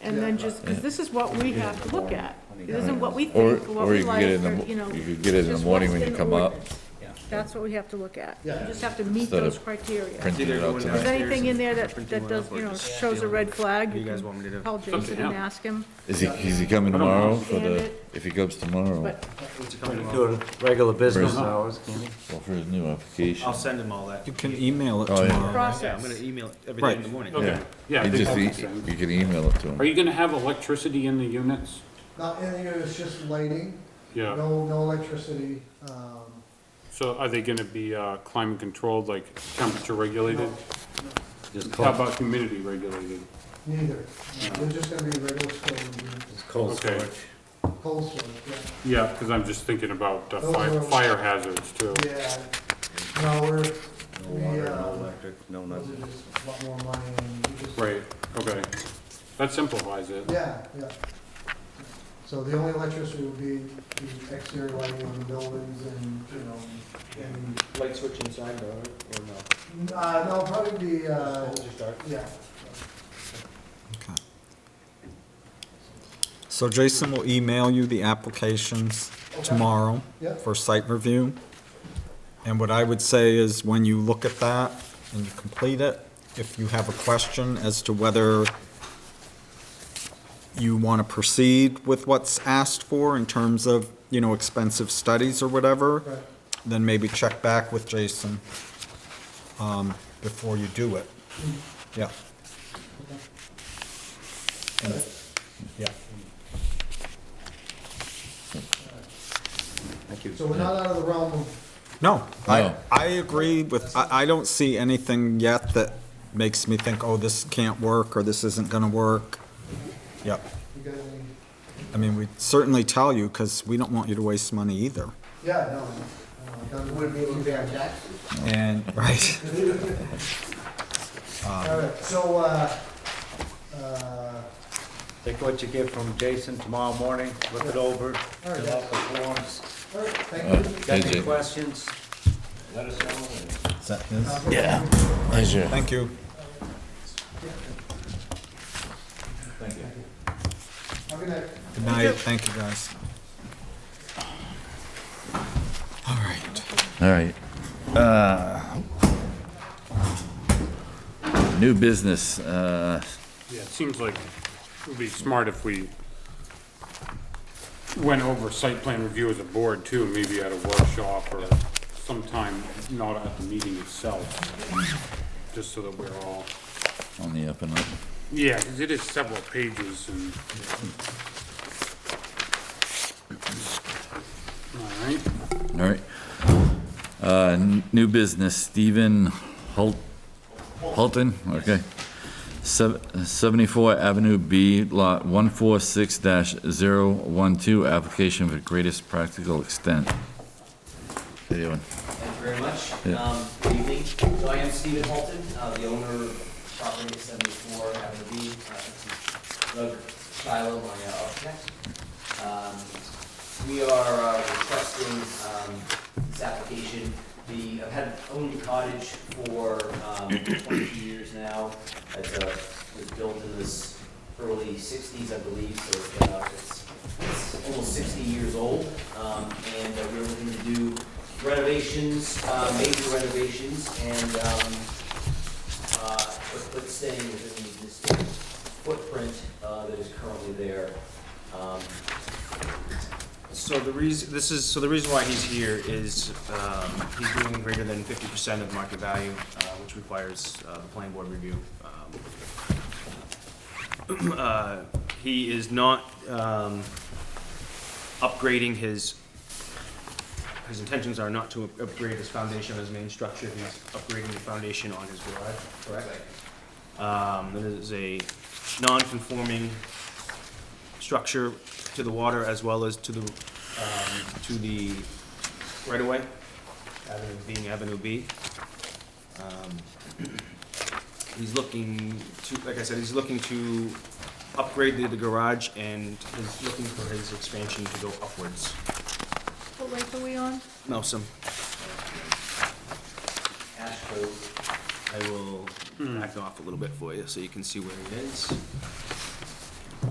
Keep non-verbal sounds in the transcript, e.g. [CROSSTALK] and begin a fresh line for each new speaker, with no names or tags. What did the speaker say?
and then just, because this is what we have to look at. It isn't what we
Or,
think, or what
or
we
you could
like,
get it
or,
in the,
you know.
mo- you could get it in the
just
morning
what's
when you
in
come
the
up,
ordinance.
Yeah.
That's what we have to look at. You
Yeah.
just have to meet
Instead of
those criteria.
print it
Either
out
going
If
tonight.
there's anything in there that,
Print
that
one
does,
up or
you know,
just
shows a red flag,
You
you
guys
can
want me to-
call Jason
Something
and
out.
ask him,
Is he, is he coming tomorrow for the,
understand it.
if he comes tomorrow,
but
Doing regular business
Right.
hours, can you?
well, for his new application?
I'll send him all that.
You can email it
Oh, yeah.
tomorrow.
Yeah, I'm
process.
gonna email everything
Right.
in the morning.
Okay.
Yeah,
Yeah, I
you
think
just,
that's
e-
the same.
you can email it to
Are
him.
you gonna have electricity in the units?
Not in here, it's just lighting,
Yeah,
no, no electricity, um,
so are they gonna be, uh, climate controlled, like temperature regulated?
Just
How
cold,
about humidity regulated?
neither. Uh, They're just gonna be regular storage units,
just cold
Okay.
storage.
cold storage,
Yeah, cause I'm just thinking about uh,
Those
fire,
are-
fire hazards too.
yeah. Yeah, no, we're,
No
we,
water, no
uh,
electric, no
those are
nothing.
just a lot more money and we just.
Right, okay. That simplifies it.
Yeah, yeah. So the only electricity would be the exterior lighting on the buildings and, you know, and,
Light switch inside or, or no?
uh, no, probably the, uh,
just dark.
yeah.
So Jason will email you the applications
Okay.
tomorrow
Yep.
for site review. And what I would say is when you look at that and you complete it, if you have a question as to whether you want to proceed with what's asked for in terms of, you know, expensive studies or whatever,
Right.
then maybe check back with Jason um, before you do it.
Mm-hmm.
Yeah. And- Yeah.
So we're not out of the realm of,
No, I,
No.
I agree with, I, I don't see anything yet that makes me think, oh, this can't work, or this isn't gonna work. Yep,
you got any,
I mean, we certainly tell you, because we don't want you to waste money either.
yeah, no, Uh, no, no. done.
Would be able to pay our taxes.
And, [LAUGHS] right,
All right, so, uh, uh,
Take what you get from Jason tomorrow morning, look it over, fill out the forms.
all right, thank you.
Got any
Jason.
questions? Let us know.
is that his?
Yeah.
Pleasure.
Thank you.
Have a good night.
Good night, thank you, guys. All right.
All right. Uh, New business, uh,
Yeah, it seems like it would be smart if we went over site plan review as a board too, maybe at a workshop or sometime, not at the meeting itself, just so that we're all,
on the up and up.
yeah, 'cause it is several pages and. All right,
All right. Uh, n- New business, Stephen Hult, Hulton, okay. Sev- 74 Avenue B, Lot 146-012, application for greatest practical extent. How you doing?
Thank you very much.
Yeah.
Um, Good evening. So I am Stephen Holton, uh, the owner of property at 74 Avenue B. Uh, this is Doug Shiloh, my uh, architect. Um, We are uh, requesting um, this application. The, I've had owned the cottage for um, 22 years now. It's a, it was built in this early 60s, I believe, so it's been out- it's it's almost 60 years old. Um, And uh, we're looking to do renovations, uh, major renovations, and, um, uh, but, but staying within the existing footprint, uh, that is currently there. Um,
So the reason, this is, so the reason why he's here is, um, he's doing greater than fifty percent of market value, uh, which requires, uh, the planning board review. Um, [CLEARS THROAT] uh, He is not, um, upgrading his, his intentions are not to upgrade his foundation on his main structure, he's upgrading the foundation on his garage, correct? Um, that is a non-conforming structure to the water as well as to the, um, to the right-of-way, avenue, being Avenue B. Um, He's looking to, like I said, he's looking to upgrade the, the garage and he's looking for his expansion to go upwards.
What length are we on?
Nelson,
Ash Cove,
I will back off a little bit for you so you can see where it is.